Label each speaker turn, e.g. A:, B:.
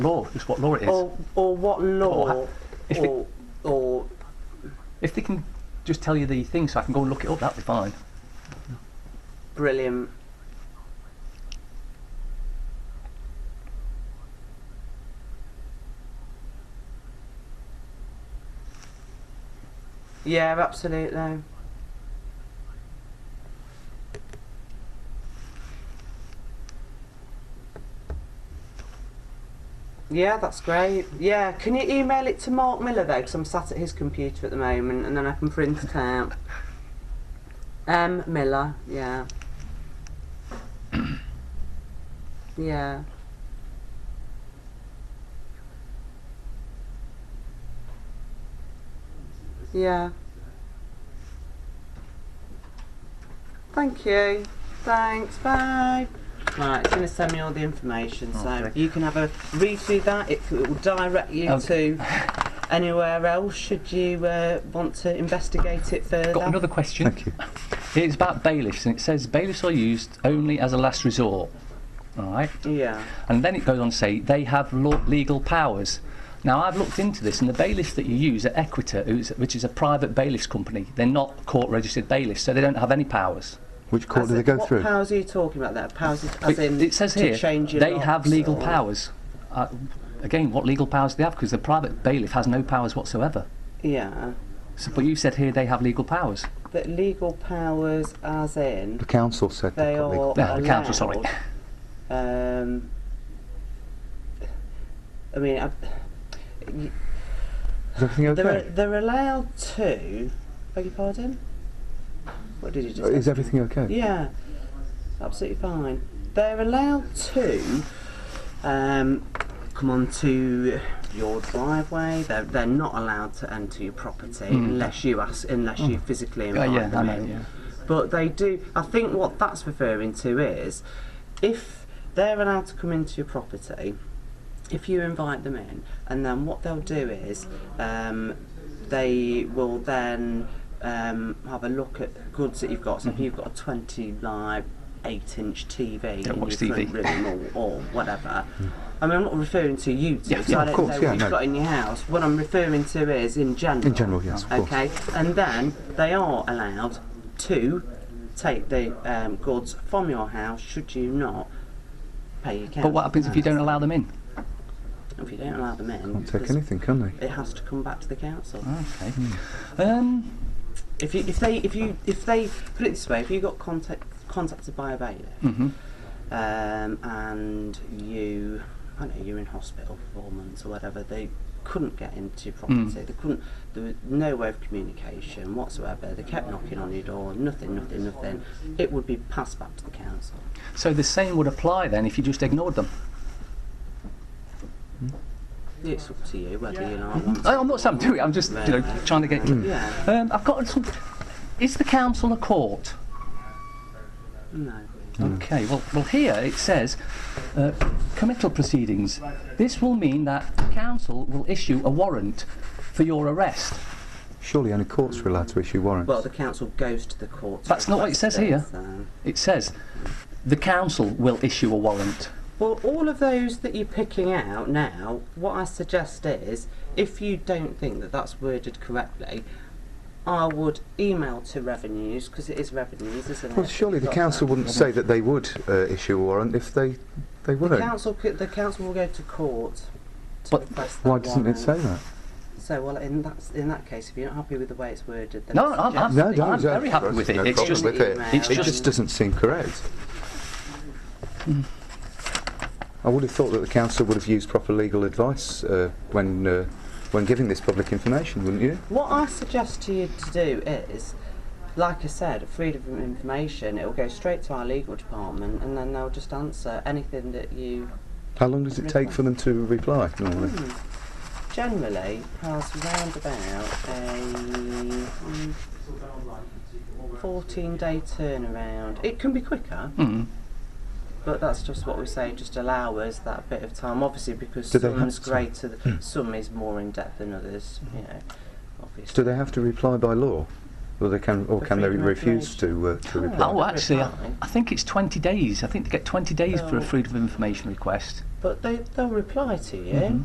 A: law. It's what law it is.
B: Or, or what law?
A: Or- if it-
B: Or, or
A: If they can just tell you the thing so I can go and look it up, that'd be fine.
B: brilliant. Yeah, absolutely. Yeah, that's great. Yeah, can you email it to Mark Miller though? Because I'm sat at his computer at the moment, and then I can print it out. M Miller, yeah. yeah. Yeah. Thank you. Thanks. Bye. Right, it's going to send me all the information, so
A: Oh, Okay. Oh.
B: you can have a read through that. It, it will direct you
A: Okay.
B: to anywhere else should you uh, want to investigate it further.
A: Got another question.
C: Thank you.
A: It's about bailiffs, and it says bailiffs are used only as a last resort. All right,
B: Yeah.
A: and then it goes on to say they have law- legal powers. Now I've looked into this, and the bailiffs that you use at Equita, who's- which is a private bailiffs company, they're not court-registered bailiffs, so they don't have any powers.
C: Which court
B: As
C: do they
B: in-
C: go
B: what
C: through?
B: powers are you talking about there? Powers is- as
A: It-
B: in
A: it says
B: to
A: here
B: change your
A: they
B: locks
A: have legal
B: or-
A: powers. Uh, again, what legal powers do they have? Because the private bailiff has no powers whatsoever.
B: Yeah.
A: So, but you said here they have legal powers.
B: But legal powers as in
C: The council said
B: they
C: they've got
B: are
C: legal-
A: No, the council, sorry.
B: allowed, Um, I mean, I,
C: Is everything
B: they're,
C: okay?
B: they're allowed to. Beg your pardon? What did you just ask
C: Is
B: me?
C: everything okay?
B: Yeah, absolutely fine. They're allowed to um, come onto your driveway. They're, they're not allowed to enter your property unless you ask, unless you physically
A: Hmm. Oh. Yeah,
B: invite
A: yeah, I
B: them
A: know.
B: in.
A: Yeah.
B: But they do. I think what that's referring to is if they're allowed to come into your property, if you invite them in, and then what they'll do is um, they will then um, have a look at goods that you've got. So if
A: Mm-hmm.
B: you've got a 20 live, 8 inch TV
A: Yeah,
B: in
A: watch
B: your
A: TV.
B: front room or, or whatever. I mean, I'm not referring to you two,
A: Yeah,
B: so
A: yeah,
B: I
A: of
B: don't
C: course,
B: know
C: yeah,
B: what you've
C: no.
B: got in your house. What I'm referring to is in general.
C: In general, yes, of course.
B: Okay, and then they are allowed to take the um, goods from your house should you not pay your council
A: But what happens if you
B: tax.
A: don't allow them in?
B: If you don't allow them in,
C: Can't take
B: there's-
C: anything, can they?
B: It has to come back to the council.
A: Okay. Um,
B: If you, if they, if you, if they put it this way, if you got contact, contacted by a bailiff,
A: mhm.
B: um, and you, I don't know, you're in hospital for four months or whatever, they couldn't get into your property.
A: Hmm.
B: They couldn't. There was no way of communication whatsoever. They kept knocking on your door. Nothing, nothing, nothing. It would be passed back to the council.
A: So the same would apply then if you just ignored them.
B: It's up to you whether you like want
A: I, I'm not saying do it. I'm just you know trying to get.
B: to. Yeah.
A: Um, I've got some. Is the council a court?
B: No.
A: Okay, well, well here it says uh, committal proceedings. This will mean that the council will issue a warrant for your arrest.
C: Surely only courts are allowed to issue warrants.
B: Well, the council goes to the court. to
A: That's not what it
B: request
A: says here.
B: this, um,
A: It says the council will issue a warrant.
B: Well, all of those that you're picking out now, what I suggest is if you don't think that that's worded correctly, I would email to revenues because it is revenues, isn't it?
C: Well, surely the
B: Got
C: council
B: that.
C: wouldn't say that they would uh, issue a warrant if they
B: The
C: they weren't.
B: council, could, the council will go to court. To
A: But
B: request that
C: Why doesn't
B: warrant.
C: it say that?
B: So, well, in that in that case, if you're not happy with the way it's worded, then
A: No,
B: I
A: I'm- I'm-
B: suggest
C: No,
B: that
C: no,
A: I'm
C: no,
A: very happy with it.
C: no
A: It's
C: problem
A: just-
C: with it.
B: It's
C: It just,
A: just-
C: doesn't seem correct. I would have thought that the council would have used proper legal advice uh, when uh, when giving this public information, wouldn't you?
B: What I suggest to you to do is, like I said, freedom of information, it'll go straight to our legal department and then they'll just answer anything that you
C: How long does it take for them to reply normally?
B: generally has round about a mm, 14 day turnaround. It can be quicker,
A: Mm.
B: but that's just what we say, just allow us that bit of time, obviously, because
C: Do they have
B: some is
C: to? Hmm.
B: greater, th- some is more in depth than others, you know, obviously.
C: Do they have to reply by law? Well, they can, or
B: For
C: can they
B: freedom of
C: refuse to, uh, to reply?
A: Oh, actually, I,
B: Reply.
A: I think it's 20 days. I think they get 20 days for
B: Oh.
A: a Freedom of Information request.
C: Mm-hmm.
B: But they, they'll reply to you.